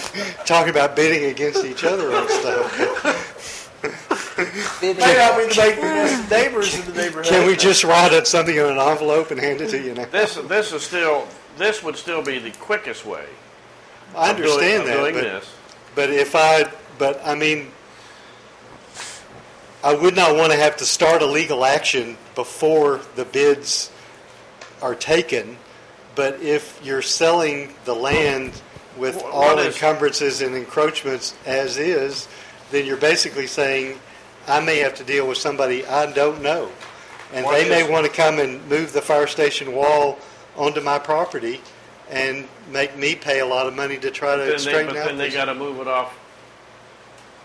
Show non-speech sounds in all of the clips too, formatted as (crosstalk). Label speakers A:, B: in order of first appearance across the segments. A: (laughs) talking about bidding against each other on
B: (laughs)
A: stuff.
C: Bidding.
D: May not be the neighbors, neighbors in uh, the neighborhood.
A: Can we just write up something in an envelope and hand it to you now?
B: This, this is still, this would still be the quickest way.
A: I
B: of doing-
A: understand
B: of
A: that,
B: doing
A: but,
B: this.
A: but if I, but I mean, I would not want to have to start a legal action before the bids are taken. But if you're selling the land with
B: Wh- what
A: all
B: is-
A: encumbrances and encroachments as is, then you're basically saying, I may have to deal with somebody I don't know. And
B: What
A: they may
B: is-
A: want to come and move the fire station wall onto my property and make me pay a lot of money to try to
B: Then they,
A: straighten
B: but
A: out.
B: then they
A: this.
B: gotta move it off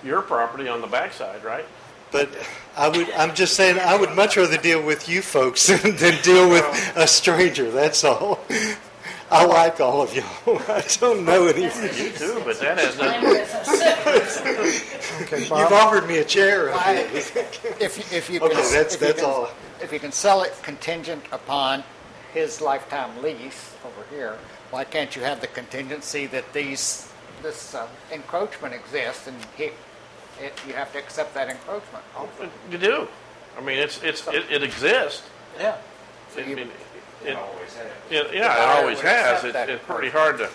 B: your property on the backside, right?
A: But I would, I'm just saying, I would much rather deal with you folks (laughs) than deal with a stranger, that's all. I like all of y'all. (laughs) I don't know any of you.
B: You do, but that has
E: I'm
B: nothing,
E: with us.
D: Okay,
A: You've
D: Bob,
A: offered me a chair.
C: I- If, you- if you can.
A: Okay, that's-
C: if you
A: that's
C: can-
A: all.
C: If you can sell it contingent upon his lifetime lease over here, why can't you have the contingency that these, this uh, encroachment exists and he, it, you have to accept that encroachment also?
B: you do. I mean, it's, it's, it, it exists.
C: Yeah.
B: I
C: you-
B: mean, It,
F: always has.
B: it-
C: The
B: yeah,
C: buyer
B: it always
C: would
B: has.
C: accept
B: It-
C: that.
B: It's pretty hard to.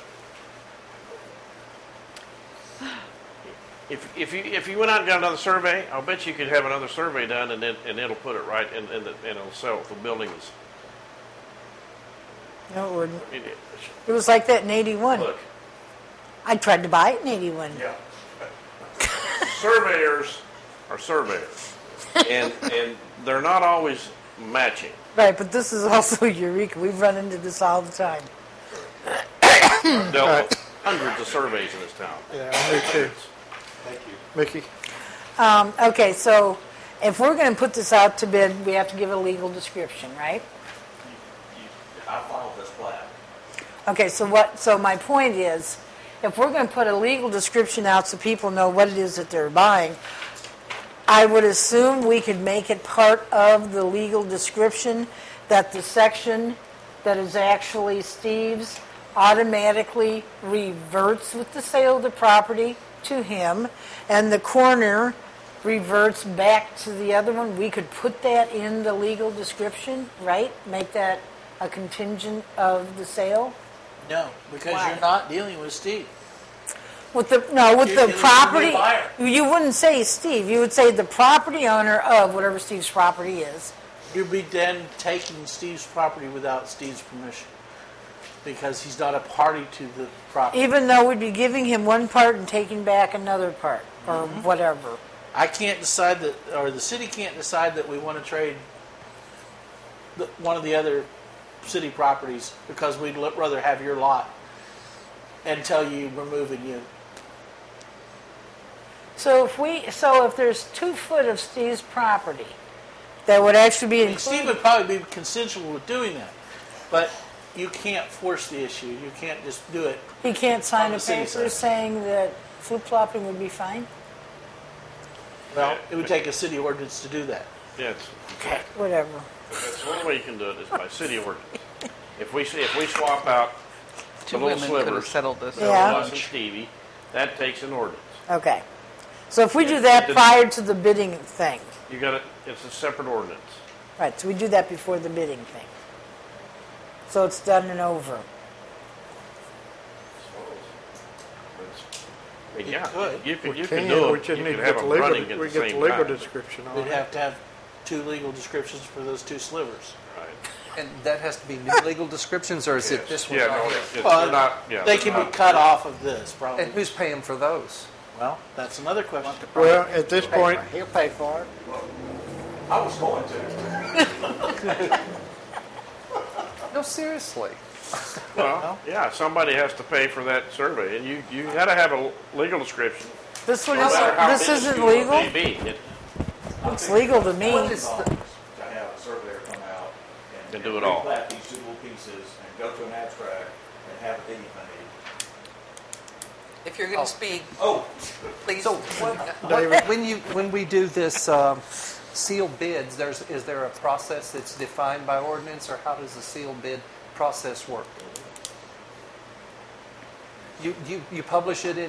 B: If, if you, if you went out and got another survey, I'll bet you could have another survey done and then, and it'll put it right and, and, the- and it'll sell the buildings.
G: No, it wouldn't.
B: It- it-
G: It was like that in 81.
B: Look,
G: I tried to buy it in 81.
F: Yeah.
B: surveyors are surveyors. And, and they're not always matching.
G: Right, but this is (laughs) also Eureka. We've run into this all the time.
B: Dealt with hundreds of surveys in this town.
D: yeah, me too. Mickey,
G: Um, okay, so if we're going to put this out to bid, we have to give a legal description, right?
F: You, I filed this plat.
G: Okay, so what, so my point is, if we're going to put a legal description out so people know what it is that they're buying, I would assume we could make it part of the legal description that the section that is actually Steve's automatically reverts with the sale of the property to him, and the corner reverts back to the other one. We could put that in the legal description, right? Make that a contingent of the sale?
D: No, because
G: Why?
D: you're not dealing with Steve.
G: With the, no, with
D: You-
G: the
D: you- you
G: property,
D: buyer.
G: you wouldn't say Steve, you would say the property owner of whatever Steve's property is.
D: You'd be then taking Steve's property without Steve's permission, because he's not a party to the property.
G: Even though we'd be giving him one part and taking back another part, or whatever.
D: I can't decide that, or the city can't decide that we want to trade the, one of the other city properties because we'd l- rather have your lot and tell you we're moving you.
G: So if we, so if there's two foot of Steve's property, that would actually be
D: I mean, Steve
G: included.
D: would probably be consensual with doing that, but you can't force the issue. You can't just do it.
G: He can't sign
D: on
G: a
D: the city
G: paper
D: side.
G: saying that flip-flopping would be fine?
D: Well, it would take a city ordinance to do that.
B: Yeah, it's,
G: Whatever.
B: That's the only way you can do it is by city ordinance. If we, if we swap out the
H: Two
B: little
H: women could have
B: slivers, Bill
H: settled this.
G: Yeah.
B: Russ and Stevie, that takes an ordinance.
G: Okay. So if we do that
B: It- it-
G: prior to the bidding thing,
B: You gotta, it's a separate ordinance.
G: right, so we do that before the bidding thing. So it's done and over.
B: It's- I mean,
D: You
B: Yeah,
D: could.
B: you could,
I: We
B: you could
I: can,
B: do
I: we
B: it,
I: just need
B: you could
I: to get
B: have
I: the
B: them
I: legal,
B: running at
I: we
B: the
I: get the
B: same
I: legal
B: time.
I: description on
D: We'd
I: it.
D: have to have two legal descriptions for those two slivers.
B: Right.
H: And that has to be new legal descriptions, or is it this one
B: Yeah, no,
H: right here?
B: it's, it's
D: Well,
B: not, yeah.
D: They
B: they're
D: can be
B: not-
D: cut off of this,
H: And
D: probably.
H: who's paying for those?
D: Well, that's another question.
I: Well, at this point,
C: He'll pay for it.
F: I was going to.
H: No, seriously.
B: Well, yeah, somebody has to pay for that survey, and you, you gotta have a legal description.
G: This one
B: no matter how
G: isn't, this
B: big
G: isn't
B: you want it
G: legal?
B: to be. It-
G: It's legal to me.
H: What is the,
F: To have a surveyor come out and.
B: And do it all.
F: Plat these two little pieces and go to an abstract and have a deed made.
J: If you're going to speak,
F: Oh,
J: please.
H: so what, when you when we do this um, sealed bids, there's is there a process that's defined by ordinance, or how does the sealed bid process work? You you, you publish it in